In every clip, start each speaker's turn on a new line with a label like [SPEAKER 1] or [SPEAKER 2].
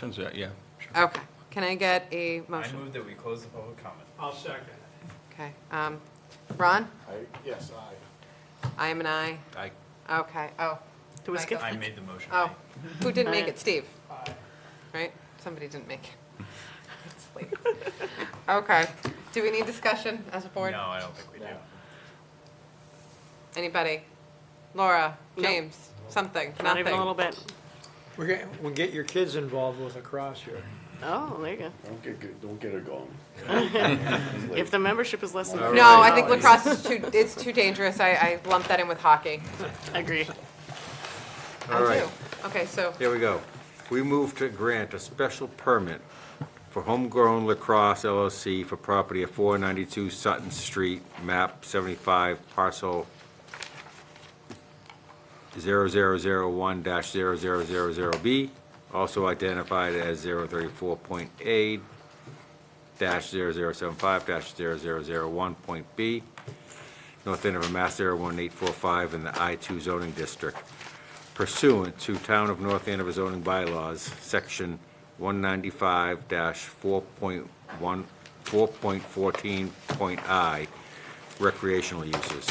[SPEAKER 1] Turns out, yeah. sure.
[SPEAKER 2] Okay, can I get a
[SPEAKER 3] I
[SPEAKER 2] motion?
[SPEAKER 3] move that we close the public comment.
[SPEAKER 4] I'll second.
[SPEAKER 2] Okay, um, Ron?
[SPEAKER 5] I, yes, I.
[SPEAKER 2] I am an aye.
[SPEAKER 1] I,
[SPEAKER 2] Okay, oh.
[SPEAKER 6] Do we
[SPEAKER 2] Michael?
[SPEAKER 6] skip?
[SPEAKER 3] I made the motion.
[SPEAKER 2] Oh, who didn't make
[SPEAKER 6] Aye.
[SPEAKER 2] it? Steve,
[SPEAKER 4] Aye.
[SPEAKER 2] right? Somebody didn't make it. It's late. Okay, do we need discussion as a
[SPEAKER 3] No,
[SPEAKER 2] board?
[SPEAKER 3] I don't think we do.
[SPEAKER 5] No.
[SPEAKER 2] Anybody? Laura,
[SPEAKER 6] Nope.
[SPEAKER 2] James, something,
[SPEAKER 6] Not even a little
[SPEAKER 2] nothing?
[SPEAKER 6] bit.
[SPEAKER 4] We're gonna, we'll get your kids involved with a cross here.
[SPEAKER 6] Oh, there you go.
[SPEAKER 5] Don't get, get- don't get her going.
[SPEAKER 6] If the membership is less than.
[SPEAKER 5] No,
[SPEAKER 2] No, I think
[SPEAKER 6] $50,
[SPEAKER 2] lacrosse is too, it's too dangerous. I, I lumped that in with hockey.
[SPEAKER 6] Agree.
[SPEAKER 2] I
[SPEAKER 7] All right.
[SPEAKER 2] do. Okay, so,
[SPEAKER 7] Here we go. We move to grant a special permit for Homegrown Lacrosse LLC for property at 492 Sutton Street, map 75, parcel 0001-0000B, also identified as 034.A dash 0075 dash 0001.B, north end of Mass 01845 in the I-2 zoning district pursuant to Town of North Andover zoning bylaws, section 195 4.1, 4.14.I, recreational uses,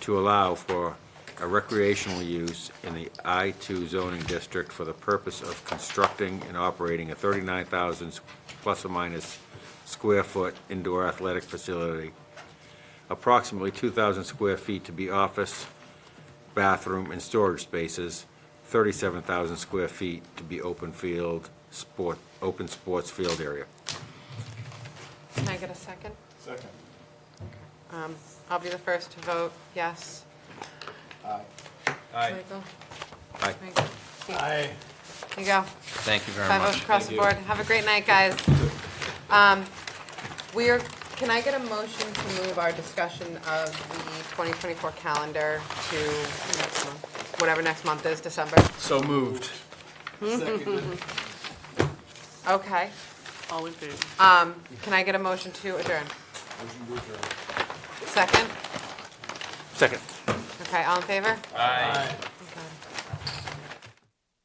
[SPEAKER 7] to allow for a recreational use in the I-2 zoning district for the purpose of constructing and operating a 39,000 s- plus or minus square foot indoor athletic facility, approximately 2,000 square feet to be office, bathroom and storage spaces, 37,000 square feet to be open field, sport, open sports field area.
[SPEAKER 2] can I get a second?
[SPEAKER 5] Second.
[SPEAKER 2] Um, I'll be the first to vote yes.
[SPEAKER 5] Aye.
[SPEAKER 3] Aye.
[SPEAKER 2] Michael?
[SPEAKER 7] Aye.
[SPEAKER 2] Michael? Steve?
[SPEAKER 4] Aye.
[SPEAKER 2] You go.
[SPEAKER 1] thank you very much.
[SPEAKER 2] Five votes across the board. Have a great night, guys. Um, We are, can I get a motion to move our discussion of the 2024 calendar to next month? whatever next month is, December?
[SPEAKER 1] So moved.
[SPEAKER 2] Okay.
[SPEAKER 6] All in favor?
[SPEAKER 2] Um, Can I get a motion to adjourn? Second?
[SPEAKER 7] Second.
[SPEAKER 2] Okay, all in favor?
[SPEAKER 3] Aye.
[SPEAKER 4] Aye.